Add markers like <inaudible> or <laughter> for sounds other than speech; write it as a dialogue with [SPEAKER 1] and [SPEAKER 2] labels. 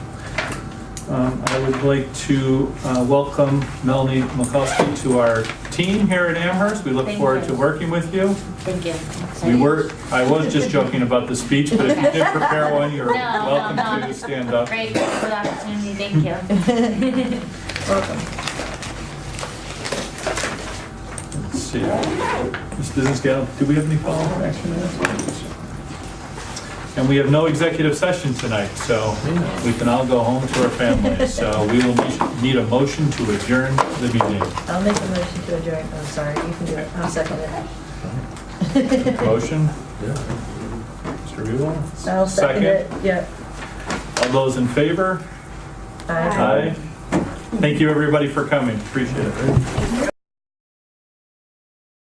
[SPEAKER 1] Um, I would like to uh, welcome Melanie McCluskey to our team here at Amherst. We look
[SPEAKER 2] Thank
[SPEAKER 1] forward
[SPEAKER 2] you.
[SPEAKER 1] to working with you.
[SPEAKER 2] Thank you.
[SPEAKER 1] We were, I was just joking about the speech, but if you
[SPEAKER 2] <laughs>
[SPEAKER 1] did prepare one, you're
[SPEAKER 2] No, no,
[SPEAKER 1] welcome
[SPEAKER 2] no.
[SPEAKER 1] to stand up.
[SPEAKER 2] Great, thanks for the opportunity, thank you.
[SPEAKER 1] Let's see. This business gal, do we have any follow-up action items? And we have no executive session tonight, so we can all go home to our families. So we will need- need a motion to adjourn the meeting.
[SPEAKER 3] I'll make a motion to adjourn, I'm sorry, you can do it, I'll second it.
[SPEAKER 1] Motion? Mr. Buell?
[SPEAKER 3] I'll second it, yeah.
[SPEAKER 1] All those in favor?
[SPEAKER 3] Aye.
[SPEAKER 1] Aye. Thank you, everybody, for coming. Appreciate it.
[SPEAKER 2] Thank you.